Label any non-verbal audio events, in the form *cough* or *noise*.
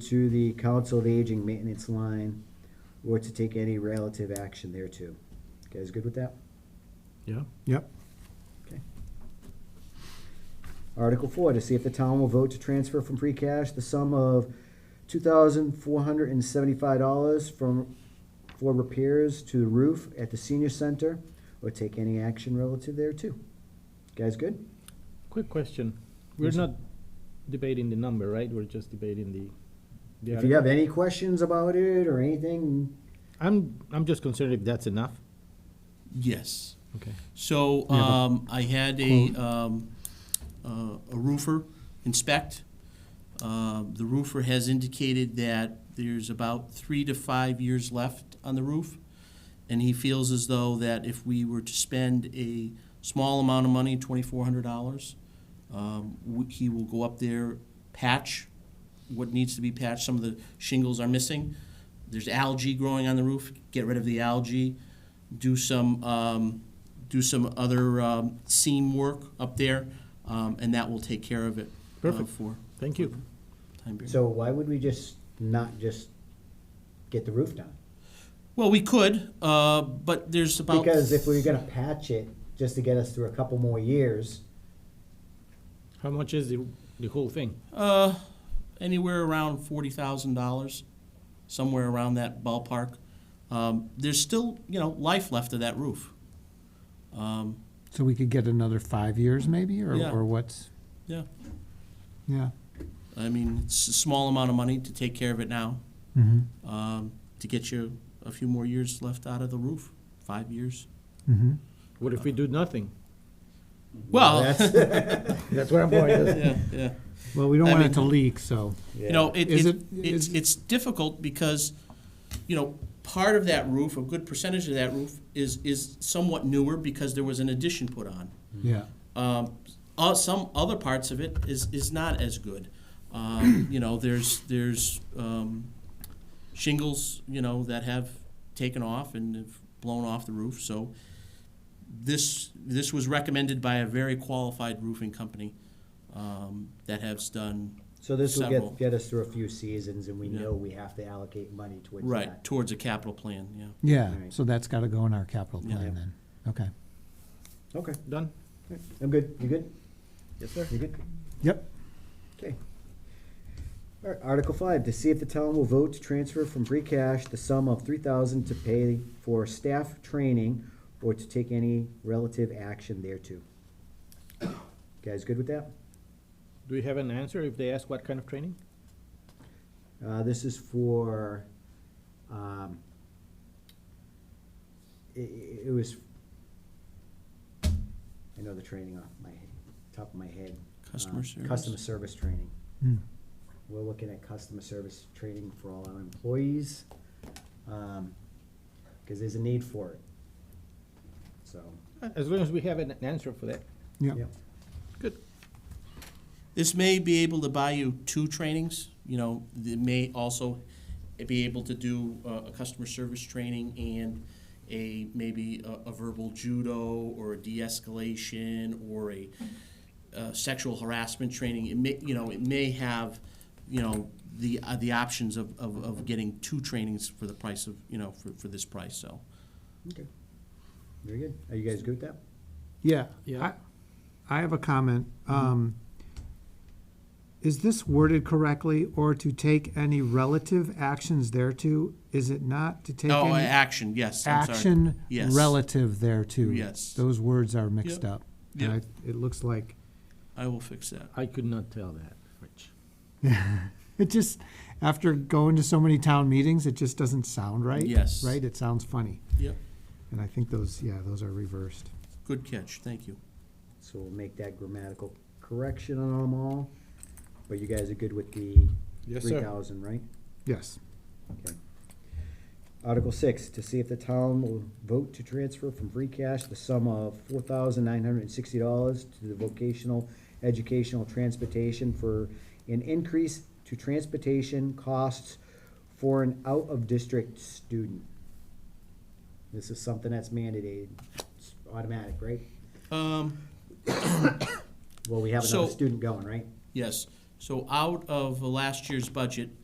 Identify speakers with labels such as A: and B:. A: to the Council of Aging maintenance line or to take any relative action thereto. You Guys good with that?
B: Yeah.
C: Yep.
A: Okay. Article four, to see if the town will vote to transfer from free cash the sum of two thousand four hundred and seventy-five dollars from, for repairs to the roof at the senior center or take any action relative thereto. Guys good?
B: Quick question. We're
A: Yes, sir.
B: not debating the number, right? We're just debating the. the
A: If you have
B: article.
A: any questions about it or anything,
B: I'm, I'm just concerned if that's enough.
D: Yes.
B: Okay.
D: So um, I had a um, uh, a roofer inspect. Uh, The roofer has indicated that there's about three to five years left on the roof. And he feels as though that if we were to spend a small amount of money, twenty-four hundred dollars, um, he will go up there, patch what needs to be patched. Some of the shingles are missing. There's algae growing on the roof. Get rid of the algae. Do some um, do some other um, seam work up there, um, and that will take care of it. uh,
B: Perfect.
D: for
B: Thank you.
D: time period.
A: so why would we just not just get the roof done?
D: well, we could, uh, but there's about
A: Because if we we're gonna patch it just to get us through a couple more years,
B: How much is the, the whole thing?
D: Uh, anywhere around forty thousand dollars, somewhere around that ballpark. Um, there's still, you know, life left of that roof. Um,
C: So we could get another five years maybe, or,
D: Yeah.
C: or what's,
D: yeah,
C: yeah.
D: I mean, it's a small amount of money to take care of it now,
C: Mm-hmm,
D: um, to get you a few more years left out of the roof, five years.
C: mm-hmm.
B: What if we do nothing?
D: Well,
A: that's,
B: That's where I'm *laughs* going.
D: *laughs* yeah, yeah.
C: Well, we don't
D: I
C: want it
D: mean-
C: to leak, so,
D: You know, it,
C: Is
D: it,
C: it-
D: it's,
C: is-
D: it's difficult because, you know, part of that roof, a good percentage of that roof is, is somewhat newer because there was an addition put on.
C: yeah.
D: Um, uh, some other parts of it is, is not as good.
C: *clears throat*
D: Um, you know, there's, there's, um, shingles, you know, that have taken off and have blown off the roof, so this, this was recommended by a very qualified roofing company, um, that has done,
A: so this will
D: Several.
A: get, get us through a few seasons and we
D: Yeah.
A: know we have to allocate money towards
D: right,
A: that.
D: towards a capital plan, yeah.
C: Yeah,
A: Right.
C: so that's gotta go in our capital
D: Yeah.
C: plan then, okay.
A: Okay,
B: Done?
A: I'm good, you good,
B: Yes, sir.
A: you good?
C: Yep.
A: Okay. All right, Article five, to see if the town will vote to transfer from free cash the sum of three thousand to pay for staff training or to take any relative action thereto. Guys good with that?
B: Do we have an answer if they ask what kind of training?
A: Uh, this is for, um, i- i it was, I know the training off my, top of my head.
D: Customer
A: Um,
D: service?
A: Customer service training.
C: Hmm.
A: We're looking at customer service training for all our employees, um, cause there's a need for it. So,
B: As long as we have an answer for that.
C: Yeah,
A: yeah,
B: Good.
D: This may be able to buy you two trainings, you know, it may also be able to do uh, a customer service training and a, maybe a- a verbal judo or a de-escalation or a uh, sexual harassment training. It may, you know, it may have, you know, the, uh, the options of, of, of getting two trainings for the price of, you know, for, for this price, so.
A: okay. Very good. Are you guys good with that?
C: yeah.
B: Yeah.
C: I I have a comment. Um, Is this worded correctly, or to take any relative actions thereto? Is it not to take
D: Oh,
C: any
D: action, yes, I'm sorry.
C: action
D: Yes.
C: relative thereto?
D: Yes.
C: Those words are mixed
D: Yep.
C: up. And
D: Yep.
C: I- It looks like
D: I will fix that.
B: I could not tell that, Rich.
C: It just after going to so many town meetings, it just doesn't sound right.
D: Yes.
C: Right? It sounds funny.
D: Yep,
C: And I think those yeah, those are reversed.
D: good catch, thank you.
A: So we'll make that grammatical correction on them all. But you guys are good with the
B: Yes,
A: three thousand, right?
C: Yes.
A: Okay. Article six, to see if the town will vote to transfer from free cash the sum of four thousand nine hundred and sixty dollars to the vocational educational transportation for an increase to transportation costs for an out-of-district student. This is something that's mandated, it's automatic, right?
D: Um,
A: Well, we have another
D: So-
A: student going, right?
D: Yes, so out of last year's budget,